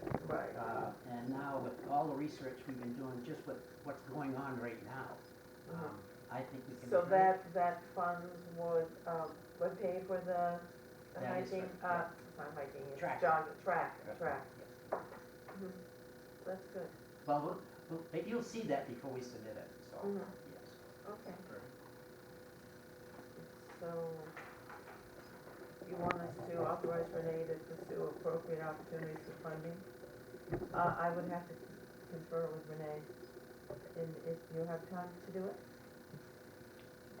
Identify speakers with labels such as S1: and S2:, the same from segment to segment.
S1: Uh, all the research we've been doing, just with what's going on right now, um, I think we can.
S2: Uh-huh. So
S1: do it.
S2: that, that fund would, um, would pay for the the
S1: That is
S2: hiking,
S1: right,
S2: uh, not hiking, it's
S1: Track.
S2: jog, track,
S1: Yes.
S2: track.
S1: Yes.
S2: Mhm. That's good,
S1: Well, we'll- we'll- but you'll see that before we submit it, so,
S2: Mhm.
S1: yes.
S2: okay. So you want us to authorize Renee to pursue appropriate opportunities for funding? Uh, I would have to confer with Renee, and if you have time to do it?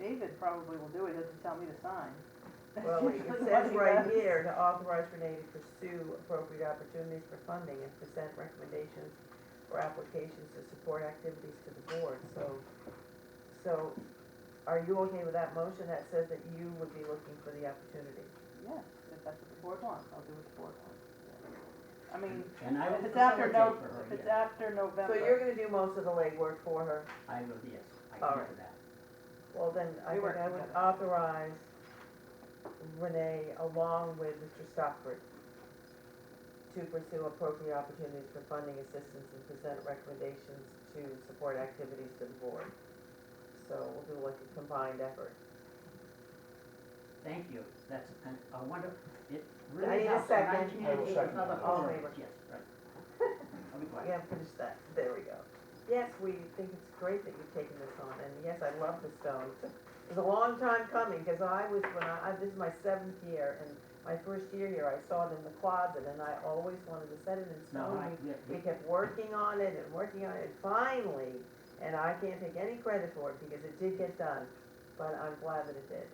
S3: David probably will do it, doesn't tell me to sign. That's
S2: Well, it
S3: usually what
S2: says
S3: he
S2: right
S3: does.
S2: here to authorize Renee to pursue appropriate opportunities for funding and present recommendations or applications to support activities to the board, so, so are you okay with that motion that says that you would be looking for the opportunity?
S3: Yes, if that's what the board wants, I'll do what the board wants. I mean,
S1: And I
S3: if
S1: will
S3: it's after
S1: facilitate
S3: no,
S1: for her,
S3: if it's
S1: yes.
S3: after
S2: So you're
S3: November,
S2: gonna do most of the legwork for her,
S1: I will, yes, I
S2: All
S1: can
S2: right.
S1: do that.
S2: well then, I
S3: We
S2: think
S3: work
S2: I would
S3: together.
S2: authorize Renee along with Mr. Stockford to pursue appropriate opportunities for funding assistance and present recommendations to support activities to the board. So we'll do like a combined effort.
S1: Thank you, that's an- a wonderful, it
S2: I
S1: really
S2: need a
S1: helps. and
S2: second. I will
S1: communicate with
S4: second
S1: other
S4: that.
S2: All in
S1: folks.
S2: favor?
S1: Yes, right. I'll be
S2: I
S1: quiet.
S2: gotta finish that, there we go. Yes, we think it's great that you've taken this on, and yes, I love the stones. It was a long time coming, because I was, when I, I- this is my seventh year, and my first year here, I saw it in the closet, and I always wanted to set it in
S1: No,
S2: stone.
S1: I,
S2: We
S1: yeah,
S2: we kept working on it and working on it, and finally, and I can't take any credit for it because it did get done, but I'm glad that it did.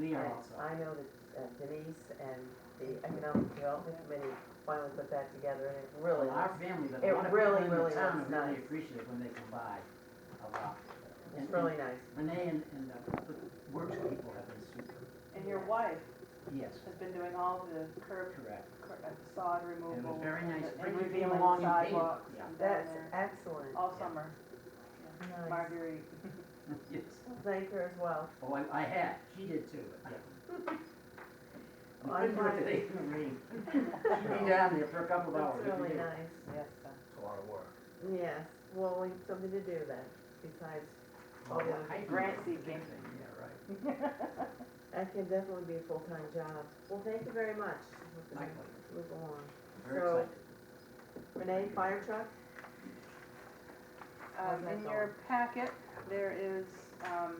S1: we are
S2: And
S1: also,
S2: I know that uh, Denise and the Economic Development Committee finally put that together, and it really,
S1: well, our family, but a
S2: it
S1: lot of
S2: really,
S1: people in the
S2: really
S1: town are
S2: looks
S1: really
S2: nice.
S1: appreciative when they come by a lot. And- and
S2: it's really nice.
S1: Renee and, and uh, the the works people have been super,
S3: and your wife
S1: yes,
S3: has been doing all the curb,
S1: correct.
S3: cur- uh, sod
S1: And
S3: removal.
S1: it was very nice
S3: and- and
S1: bringing
S3: revealing
S1: them along and being,
S3: sidewalks
S1: yeah.
S3: and down
S2: That's
S3: there
S2: excellent.
S3: all
S1: yeah.
S3: summer.
S2: Nice.
S3: Marguerite,
S1: Yes,
S2: Thank her as well.
S1: oh, I, I had, she did too, yeah.
S2: Well,
S1: I
S2: I'm
S1: couldn't do it today
S2: glad-
S1: in the rain. She'd be down there for a couple of hours.
S2: That's really
S1: every day.
S2: nice.
S3: yes, uh,
S4: It's a lot of work.
S2: Yes, well, we have something to do then, besides,
S1: Well,
S2: Oh, yeah.
S1: hiking is
S3: Grant
S1: a
S3: seed
S1: big
S3: game.
S1: thing, Yeah, right.
S2: that can definitely be a full-time job. Well, thank you very much. We're gonna
S1: Likewise.
S2: Move along.
S1: Very
S2: Mm-hmm. So-
S1: excited.
S2: Renee, fire truck?
S3: Um,
S2: How's
S3: in
S2: that
S3: your packet, there is, um,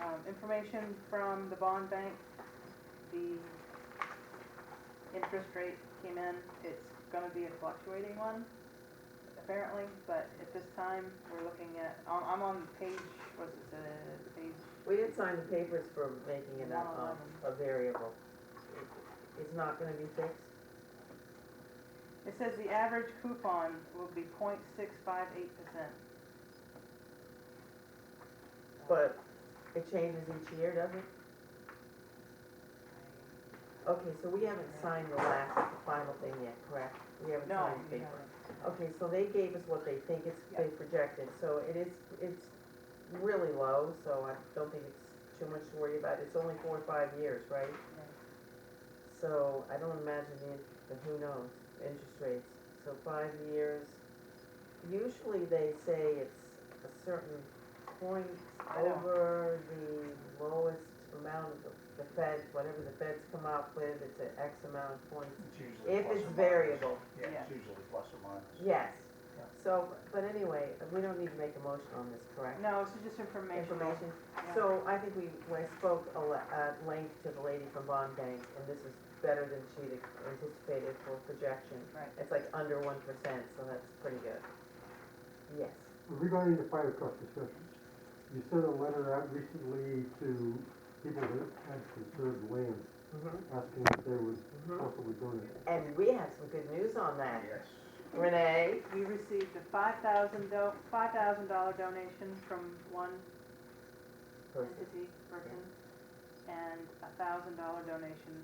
S3: um, information from the bond bank. The interest rate came in, it's gonna be a fluctuating one, apparently, but at this time, we're looking at, I'm, I'm on page, what's it, uh, page,
S2: We did sign the papers for making it a, um,
S3: 111.
S2: a variable. It- It's not gonna be fixed?
S3: it says the average coupon will be point six five eight percent.
S2: But it changes each year, doesn't it? Okay, so we haven't signed the last, the final thing yet, correct? We haven't
S3: No,
S2: signed the
S3: we
S2: paper.
S3: haven't.
S2: Okay, so they gave us what they think it's, they projected, so it is, it's really low, so I don't think it's too much to worry about. It's only four or five years, right?
S3: Yeah.
S2: So I don't imagine the, in- the who knows, interest rates. So five years, usually they say it's a certain point
S3: I don't-
S2: over the lowest amount of the- the feds, whatever the feds come up with, it's an X amount of points.
S4: It's usually
S2: If
S4: plus
S2: it's
S4: or minus.
S2: variable,
S4: Yeah,
S3: Yeah.
S4: it's usually plus or minus.
S2: yes.
S4: Yeah.
S2: So, but anyway, we don't need to make a motion on this, correct?
S3: No, it's just informational.
S2: Information.
S3: Yeah.
S2: So I think we, I spoke a le- at length to the lady from Bond Bank, and this is better than she'd anticipated for projection.
S3: Right.
S2: It's like under one percent, so that's pretty good. Yes.
S5: Regarding the fire truck discussion, you sent a letter out recently to people that had conserved land,
S2: Mm-hmm.
S5: asking if they would possibly donate.
S2: And we have some good news on that.
S4: Yes.
S2: Renee?
S3: We received a five thousand do, five thousand dollar donation from one entity person and a thousand dollar donation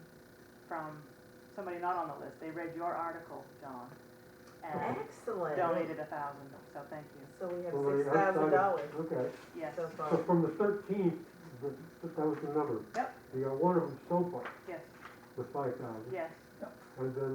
S3: from somebody not on the list. They read your article, John, and
S2: Excellent.
S3: donated a thousand, so thank you.
S2: So we have
S5: Well, they
S2: six thousand dollars
S5: outside- Okay,
S3: Yes,
S2: so
S5: so
S2: far.
S5: from the thirteenth, that was the number.
S3: Yep.
S5: We got one of them so far
S3: yes,
S5: with five thousand.
S3: yes.
S5: And then